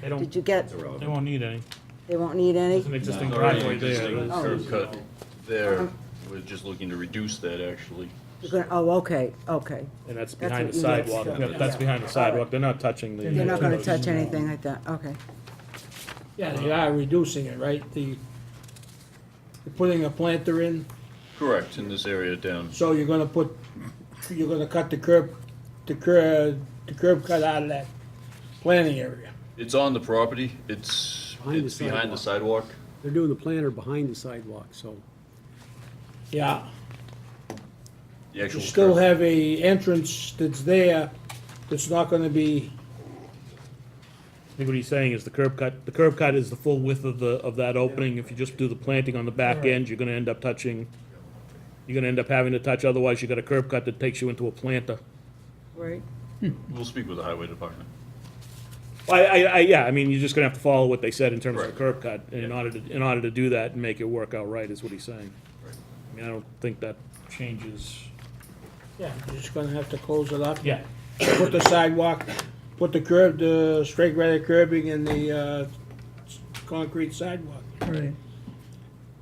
They don't- Did you get, They won't need any. they won't need any? There's an existing Already driveway there. existing That's- curb Oh. cut there, we're just looking to reduce that, actually. You're gonna- Oh, okay, okay. And That's that's behind what the you meant, sidewalk. sure. Yep, That's Yeah. behind the sidewalk. They're not touching the. You're not gonna touch anything like that, okay. Yeah, they are reducing it, right? The, you're putting a planter in, Correct, in this area down. so you're gonna put, you're gonna cut the curb, the curb, the curb cut out of that planting area. It's on the property, it's, Behind the it's behind the sidewalk. They're doing the planter behind the sidewalk, so Yeah, The actual you still curb. have a entrance that's there, that's not gonna be, I think what he's saying is the curb cut, the curb cut is the full width of the, of that opening. If you just do the planting on the back end, you're gonna end up touching, you're gonna end up having to touch, otherwise you got a curb cut that takes you into a planter. Right. We'll speak with the highway department. I, I, I, yeah, I mean, you're just gonna have to follow what they said in terms of the Right. curb cut, and in order to, in order to do that and make it work out right, is what he's saying. I mean, I don't think that changes. yeah, you're just gonna have to close it up. Yeah. Put the sidewalk, put the curb, the straight granite curbing and the, uh, s- concrete sidewalk. Right.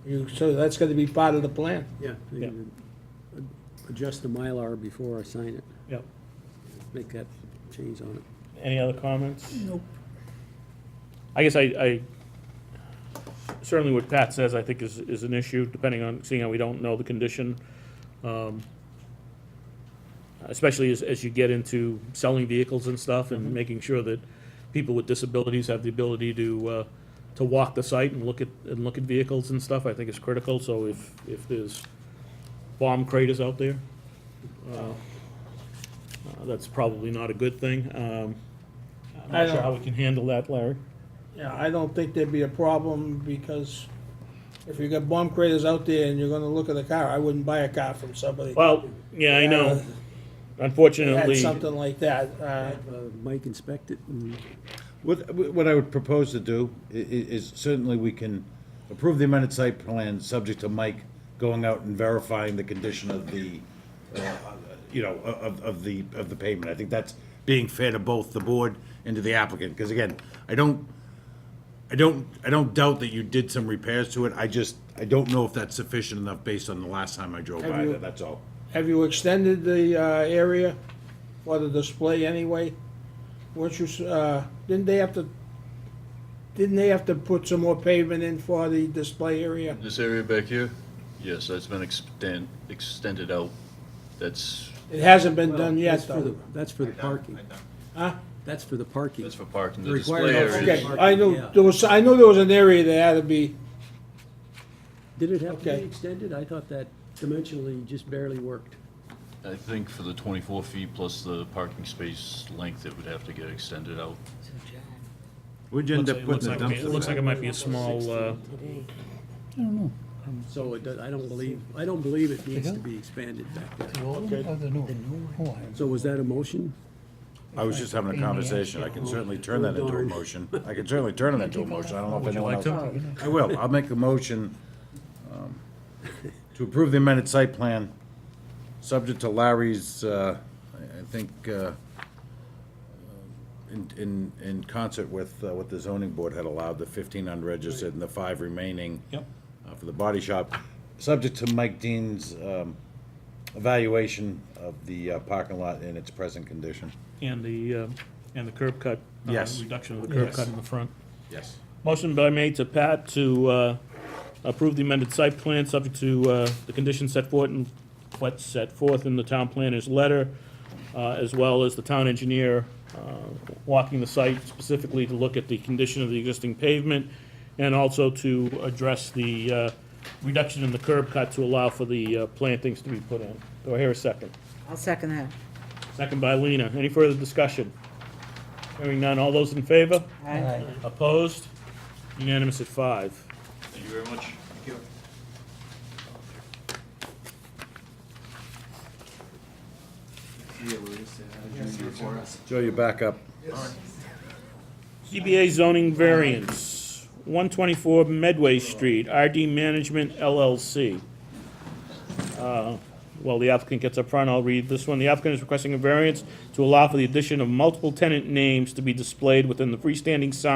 You, so that's gonna be part of the plan. yeah, they Yeah. can adjust the Mylar before I sign it, Yep. make that change on it. Any other comments? Nope. I guess I, I, certainly what Pat says, I think is, is an issue, depending on, seeing how we don't know the condition. Um, Especially as, as you get into selling vehicles and stuff, and making sure that people with disabilities have the ability to, uh, to walk the site and look at, and look at vehicles and stuff, I think is critical, so if, if there's bomb craters out there, uh, uh, that's probably not a good thing, um, I'm I not sure don't- how we can handle that, Larry. Yeah, I don't think there'd be a problem because if you got bomb craters out there and you're gonna look at a car, I wouldn't buy a car from somebody. Well, yeah, I know. Had Unfortunately, something like that, uh, Uh, Mike inspect it and What, what I would propose to do i- i- is certainly we can approve the amended site plan, subject to Mike going out and verifying the condition of the, uh, you know, of, of the, of the pavement. I think that's being fair to both the board and to the applicant, because again, I don't, I don't, I don't doubt that you did some repairs to it, I just, I don't know if that's sufficient enough based on the last time I drove by Have you- there, that's all. have you extended the, uh, area for the display anyway? Weren't you, s- uh, didn't they have to, didn't they have to put some more pavement in for the display area? This area back here, yes, that's been extend, extended out. That's, It hasn't been done That's yet for the, though. that's for the parking. Huh? That's for the parking. that's for parking. The Required display also- area Okay, is I knew, Yeah. there was, I knew there was an area that had to be, Did it have to Okay. be extended? I thought that dimensionally just barely worked. I think for the 24 feet plus the parking space length, it would have to get extended out. Where'd you it end up looks putting the like, it looks like dumpster? it might be a small, uh, So it does, I don't believe, I don't believe it needs to be expanded back there. So was that a motion? I was just having a conversation, I can certainly turn that into a Darn. motion, I can certainly turn that into a motion, I don't know if anyone else. I will, I'll make a motion um, to approve the amended site plan, subject to Larry's, uh, I I think, uh, in, in, in concert with uh, what the zoning board had allowed, the fifteen unregistered and the five remaining. Yep. uh, For the body shop, subject to Mike Dean's um, evaluation of the uh, parking lot in its present condition. and the, uh, and the curb cut. uh, Yes. Reduction of the curb cut in the front. Yes. Motion by made to Pat to uh, approve the amended site plan, subject to uh, the conditions set forth in, what's set forth in the town planner's letter, uh, as well as the town engineer uh, walking the site specifically to look at the condition of the existing pavement, and also to address the uh, reduction in the curb cut to allow for the uh, plantings to be put in. Do I hear a second? I'll second that. Second by Lena. Any further discussion? Hearing none. All those in favor? Aye. Opposed? Unanimous at five. Thank you very much. Joe, you're back up. CBA zoning variance, 124 Medway Street, RD Management LLC. Uh, While the applicant gets up front, I'll read this one. The applicant is requesting a variance to allow for the addition of multiple tenant names to be displayed within the freestanding sign